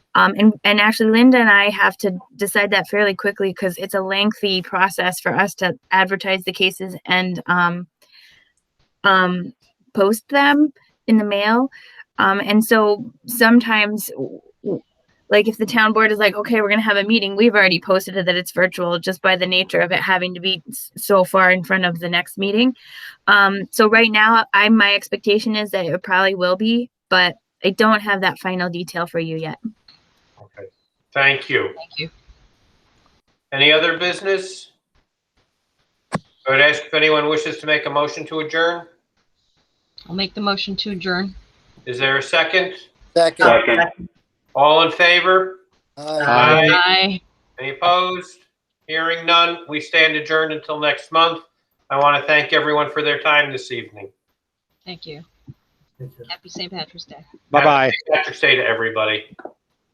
Um, and, and actually, Linda and I have to decide that fairly quickly because it's a lengthy process for us to advertise the cases and um, um, post them in the mail. Um, and so sometimes, w- w- like if the town board is like, okay, we're going to have a meeting, we've already posted it that it's virtual just by the nature of it having to be s- so far in front of the next meeting. Um, so right now, I my expectation is that it probably will be, but I don't have that final detail for you yet. Okay, thank you. Thank you. Any other business? I would ask if anyone wishes to make a motion to adjourn. I'll make the motion to adjourn. Is there a second? Second. Second. All in favor? Aye. Aye. Any opposed? Hearing none, we stand adjourned until next month. I want to thank everyone for their time this evening. Thank you. Happy St. Patrick's Day. Bye-bye. Happy Patrick's Day to everybody.